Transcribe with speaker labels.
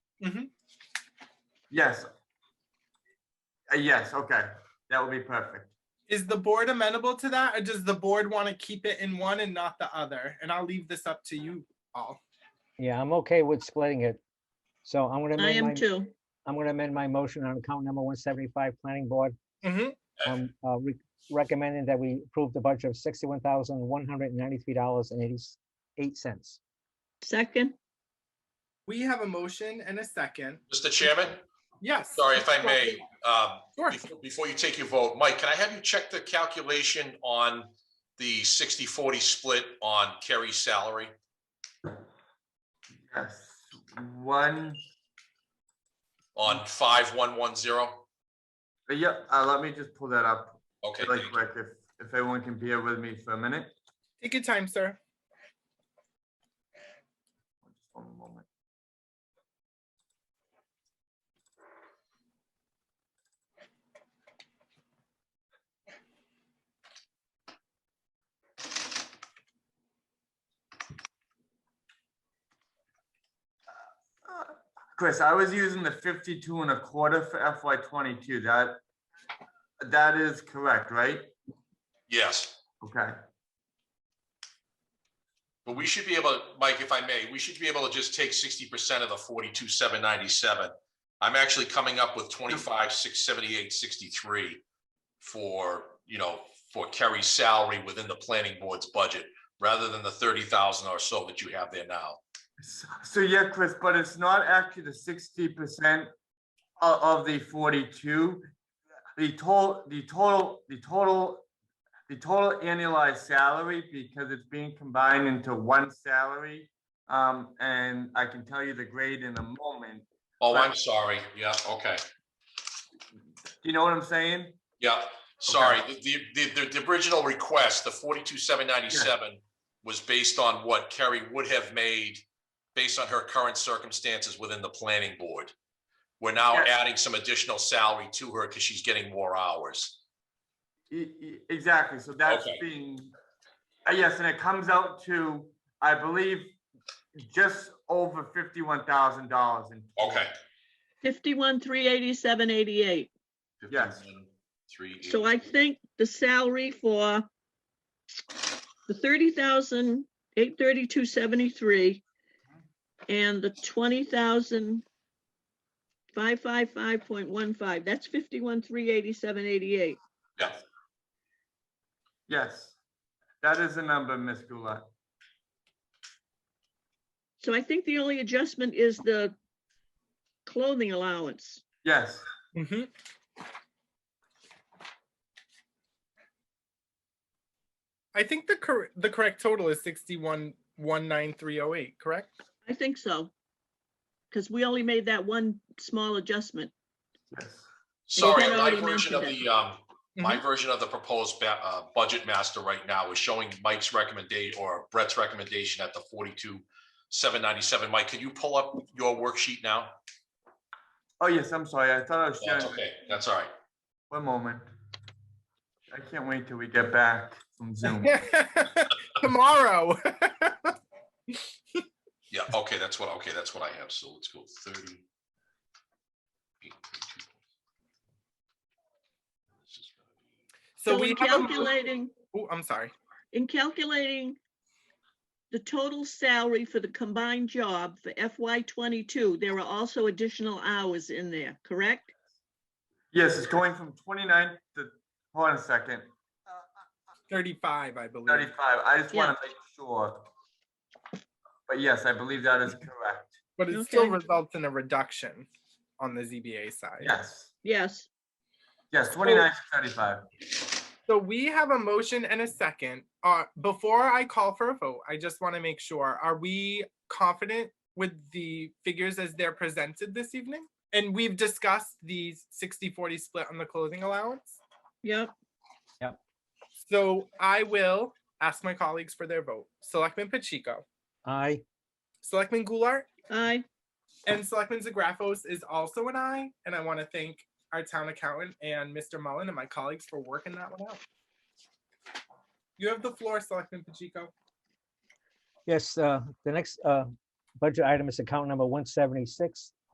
Speaker 1: Mhm.
Speaker 2: Yes. Uh, Yes, okay, that would be perfect.
Speaker 1: Is the board amenable to that, or does the board want to keep it in one and not the other? And I'll leave this up to you all.
Speaker 3: Yeah, I'm okay with splitting it. So I'm gonna
Speaker 4: I
Speaker 3: amend
Speaker 4: am
Speaker 3: my,
Speaker 4: too.
Speaker 3: I'm gonna amend my motion on account number one seventy-five, planning board.
Speaker 1: Mhm.
Speaker 3: Um, uh, re- recommending that we approve the budget of sixty-one thousand, one hundred and ninety-three dollars and eighty-eight cents.
Speaker 4: Second,
Speaker 1: We have a motion and a second.
Speaker 5: Mr. Chairman,
Speaker 1: Yes.
Speaker 5: sorry if I may, um,
Speaker 1: Sure.
Speaker 5: before- before you take your vote, Mike, can I have you check the calculation on the 60-40 split on Kerry's salary?
Speaker 2: Yes, one,
Speaker 5: on five one one zero.
Speaker 2: uh, yeah, uh, let me just pull that up
Speaker 5: Okay,
Speaker 2: really
Speaker 5: thank you.
Speaker 2: quick, if, if everyone can bear with me for a minute.
Speaker 1: Take your time, sir.
Speaker 2: Just one moment. Chris, I was using the fifty-two and a quarter for FY twenty-two. That, that is correct, right?
Speaker 5: yes,
Speaker 2: Okay,
Speaker 5: but we should be able, to Mike, if I may, we should be able to just take sixty percent of the forty-two, seven ninety-seven. I'm actually coming up with twenty-five, six seventy-eight, sixty-three for, you know, for Kerry's salary within the planning board's budget, rather than the thirty thousand or so that you have there now.
Speaker 2: S- so yeah, Chris, but it's not actually the sixty percent of, the forty-two. The total, the total, the total, the total annualized salary, because it's being combined into one salary. Um, and I can tell you the grade in a moment.
Speaker 5: Oh, I'm sorry. Yeah, okay.
Speaker 2: Do you know what I'm saying?
Speaker 5: Yeah, sorry, the, the, the, the original request, the forty-two, seven ninety-seven was based on what Kerry would have made based on her current circumstances within the planning board. We're now
Speaker 2: Yeah.
Speaker 5: adding some additional salary to her because she's getting more hours.
Speaker 2: E- e- Exactly, so that's
Speaker 5: Okay.
Speaker 2: being, uh, yes, and it comes out to, I believe, just over fifty-one thousand dollars in. total.
Speaker 5: Okay.
Speaker 4: fifty-one, three eighty-seven, eighty-eight.
Speaker 2: Yes.
Speaker 5: 51, Three.
Speaker 4: So I think the salary for the thirty thousand, eight thirty-two, seventy-three and the twenty thousand, five, five, five point one five, that's fifty-one, three eighty-seven, eighty-eight.
Speaker 5: Yeah,
Speaker 2: Yes, that is the number, Ms. Gulart.
Speaker 4: So I think the only adjustment is the clothing allowance.
Speaker 2: Yes,
Speaker 1: Mhm. I think the cor- the correct total is sixty-one, one nine three oh eight, correct?
Speaker 4: I think so. Because we only made that one small adjustment.
Speaker 2: yes.
Speaker 5: sorry,
Speaker 4: had
Speaker 5: my
Speaker 4: already
Speaker 5: version of
Speaker 4: mentioned
Speaker 5: the, um, my version of the proposed ba- uh, budget master right now is showing Mike's recommendation or Brett's recommendation at the forty-two, seven ninety-seven. Mike, could you pull up your worksheet now?
Speaker 2: Oh, yes, I'm sorry. I thought I was
Speaker 5: That's
Speaker 2: sharing.
Speaker 5: okay, that's all right.
Speaker 2: One moment. I can't wait till we get back from Zoom.
Speaker 1: Tomorrow.
Speaker 5: Yeah, okay, that's what, okay, that's what I have, so let's go thirty.
Speaker 1: So
Speaker 4: So
Speaker 1: we
Speaker 4: in
Speaker 1: have, a mo-
Speaker 4: calculating,
Speaker 1: oh, I'm sorry.
Speaker 4: in calculating the total salary for the combined job for FY twenty-two, there are also additional hours in there, correct?
Speaker 2: Yes, it's going from 29 to, hold on a second,
Speaker 1: Thirty-five, I believe.
Speaker 2: 35. I just want
Speaker 4: Yeah.
Speaker 2: to make sure. But yes, I believe that is correct.
Speaker 1: But it still
Speaker 4: Okay.
Speaker 1: results in a reduction on the ZBA side.
Speaker 2: Yes,
Speaker 4: Yes,
Speaker 2: yes, 29 to 35.
Speaker 1: So we have a motion and a second. Uh, before I call for a vote, I just want to make sure, are we confident with the figures as they're presented this evening? And we've discussed the 60-40 split on the clothing allowance.
Speaker 4: yep.
Speaker 1: So I will ask my colleagues for their vote. Selectman Pacheco,
Speaker 3: Aye,
Speaker 1: Selectman Goulart,
Speaker 4: Aye,
Speaker 1: and Selectman Zagrafos is also an aye. And I want to thank our town accountant and Mr. Mullen and my colleagues for working that one out. You have the floor, Selectman Pacheco.
Speaker 3: yes, uh, the next, uh, budget item is account number one seventy-six,